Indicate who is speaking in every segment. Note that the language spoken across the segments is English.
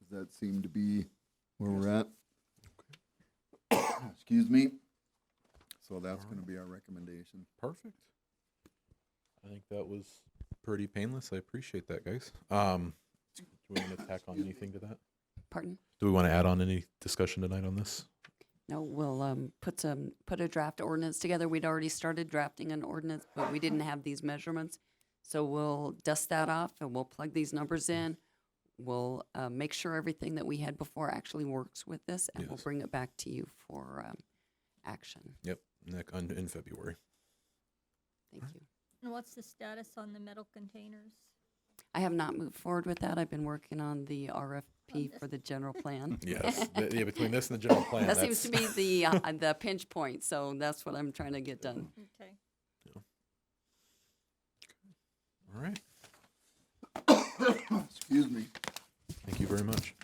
Speaker 1: Does that seem to be where we're at? Excuse me. So that's gonna be our recommendation.
Speaker 2: Perfect. I think that was pretty painless. I appreciate that, guys. Um, do we want to tack on anything to that?
Speaker 3: Pardon?
Speaker 2: Do we want to add on any discussion tonight on this?
Speaker 3: No, we'll um, put some, put a draft ordinance together. We'd already started drafting an ordinance, but we didn't have these measurements. So we'll dust that off and we'll plug these numbers in. We'll uh, make sure everything that we had before actually works with this and we'll
Speaker 2: Yes.
Speaker 3: bring it back to you for um, action.
Speaker 2: Yep, neck on, in February.
Speaker 3: Thank you.
Speaker 4: And what's the status on the metal containers?
Speaker 3: I have not moved forward with that. I've been working on the RFP
Speaker 4: this.
Speaker 3: for the general plan.
Speaker 2: Yes, th- yeah. Between this and the general plan,
Speaker 3: That seems to be the, uh, the pinch point, so that's what I'm trying to get done.
Speaker 4: Okay.
Speaker 2: all right.
Speaker 1: Excuse me.
Speaker 2: Thank you very much.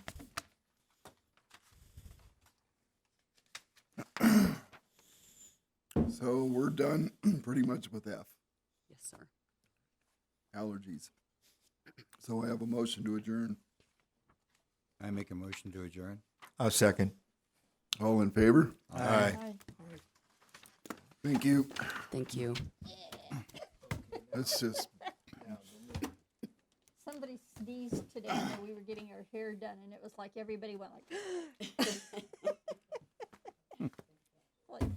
Speaker 1: So we're done pretty much with F,
Speaker 3: Yes, sir.
Speaker 1: allergies. So I have a motion to adjourn.
Speaker 5: I make a motion to adjourn.
Speaker 6: A second.
Speaker 1: All in favor?
Speaker 6: Aye.
Speaker 1: Thank you.
Speaker 3: Thank you.
Speaker 1: That's just,
Speaker 4: Somebody sneezed today when we were getting our hair done and it was like everybody went like